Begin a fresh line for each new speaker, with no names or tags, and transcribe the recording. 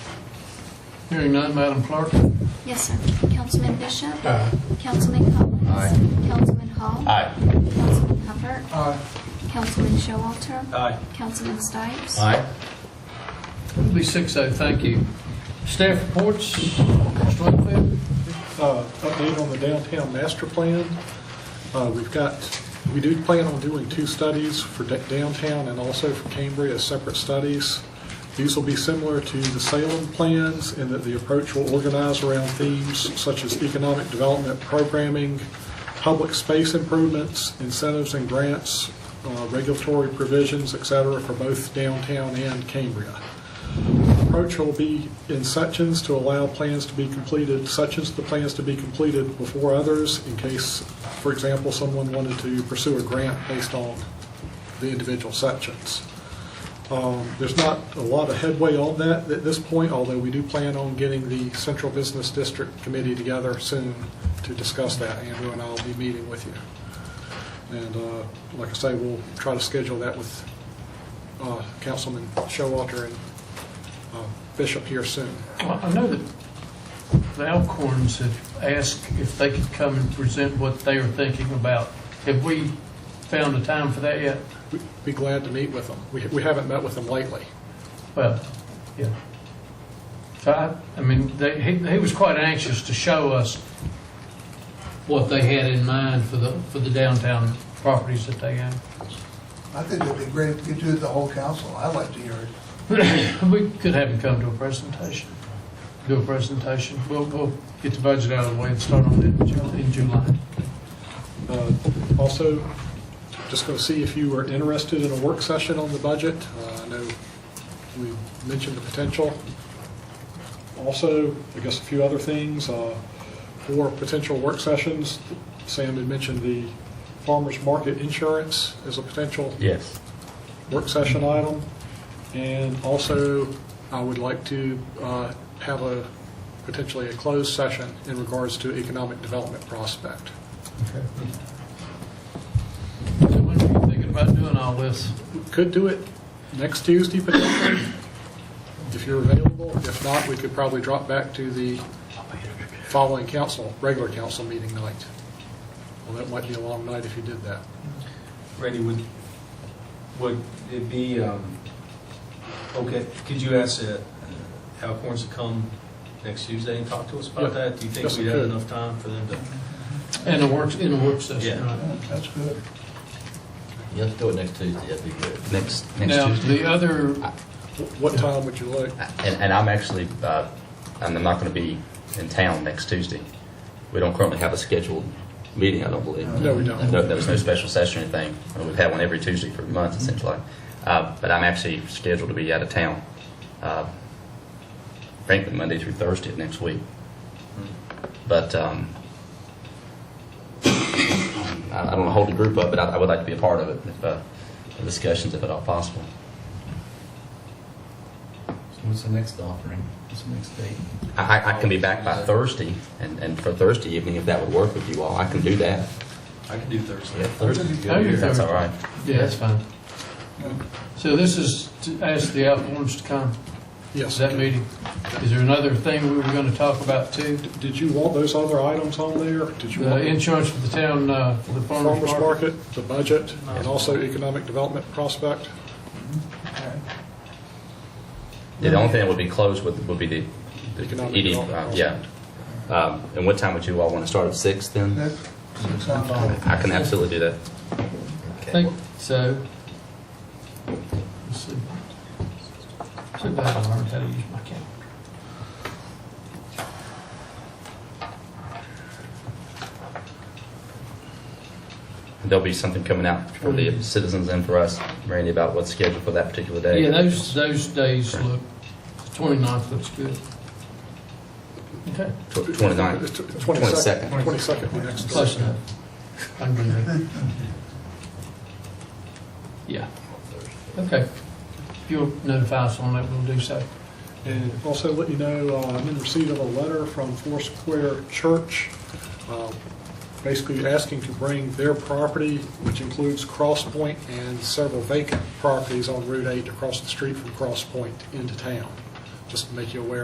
Hearing none, Madam Clerk?
Yes, sir. Councilman Bishop?
Aye.
Councilman Collins?
Aye.
Councilman Hall?
Aye.
Councilman Hubbard?
Aye.
Councilman Showalter?
Aye.
Councilman Stipes?
Aye.
Be six oh, thank you. Staff reports, Mr. Wakefield?
uh, update on the downtown master plan. Uh, We've got, we do plan on doing two studies for da- downtown and also for Cambria as separate studies. These will be similar to the Salem plans in that the approach will organize around themes such as economic development programming, public space improvements, incentives and grants, uh, regulatory provisions, et cetera, for both downtown and Cambria approach will be in sections to allow plans to be completed, sections of the plans to be completed before others, in case, for example, someone wanted to pursue a grant based on the individual sections. Um, There's not a lot of headway on that at this point, although we do plan on getting the Central Business District Committee together soon to discuss that. Andrew and I will be meeting with you. And uh, like I say, we'll try to schedule that with uh, Councilman Showalter and uh, Bishop here soon.
Well, I know that the Alcorns have asked if they could come and present what they are thinking about. Have we found a time for that yet?
We'd Be glad to meet with them. We we haven't met with them lately.
Well, yeah. So I, I mean, they, he, he was quite anxious to show us what they had in mind for the, for the downtown properties that they own.
I think it'd be great if you do it the whole council. I'd like to hear it.
We could have him come to a presentation, do a presentation. We'll, we'll get the budget out of the way and start on it in Ju- in July.
Uh, Also, just going to see if you are interested in a work session on the budget. Uh, I know we mentioned the potential. Also, I guess a few other things uh, for potential work sessions. Sam had mentioned the farmer's market insurance as a potential
Yes.
work session item. And also, I would like to uh, have a, potentially a closed session in regards to economic development prospect.
So when are you thinking about doing all this?
We Could do it next Tuesday potentially, if you're available. If not, we could probably drop back to the following council, regular council meeting night. Well, that might be a long night if you did that.
Randy, would, would it be, um, okay, could you ask uh, Alcorns to come next Tuesday and talk to us
Yeah.
about that? Do you think
Yes,
we'd
we
have
could.
enough time for them to?
In a work, in a work session,
Yeah.
right?
That's good.
You have to do it next Tuesday, that'd be good.
Next, next
Now,
Tuesday.
the other,
What time would you like?
And, and I'm actually, uh, and I'm not going to be in town next Tuesday. We don't currently have a scheduled meeting, I don't believe.
No, we don't.
No, there was no special session or anything. Uh, We've had one every Tuesday for months essentially. Uh, but I'm actually scheduled to be out of town, uh, frankly, Monday through Thursday of next week. But, um, I, I don't want to hold the group up, but I, I would like to be a part of it, if, uh, the discussions, if at all possible.
What's the next offering? What's the next date?
I, I- I can be back by Thursday, and, and for Thursday evening, if that would work with you all, I can do that.
I can do Thursday.
Yeah, Thursday.
Oh, you're
That's
Thursday.
all right.
yeah, that's fine. So this is to ask the Alcorns to come, is
Yes.
that meeting? Is there another thing we were going to talk about too?
Did you want those other items on there? Did you
The
want?
insurance for the town, uh, for the farmer's
farmer's
market?
market, the budget, and also economic development prospect.
Yeah, The only thing that would be closed would, would be the, the
Economic
eating,
development.
uh, yeah. Um, and what time would you all want to start at six then?
That's, six on all.
I can absolutely do that.
Think so. Let's see. See if I learned how to use my camera.
There'll be something coming out for the citizens and for us, Randy, about what's scheduled for that particular day.
Yeah, those, those days look, the 29th looks good. Okay,
Tw- Twenty-nine.
Twenty-second. Twenty-second, the next.
close enough. I can do that. Yeah. Okay. If you'll notify us on that, we'll do so.
And also let you know, uh, I'm in receipt of a letter from Foursquare Church, uh, basically asking to bring their property, which includes Cross Point and several vacant properties on Route 8 across the street from Cross Point into town, just to make you aware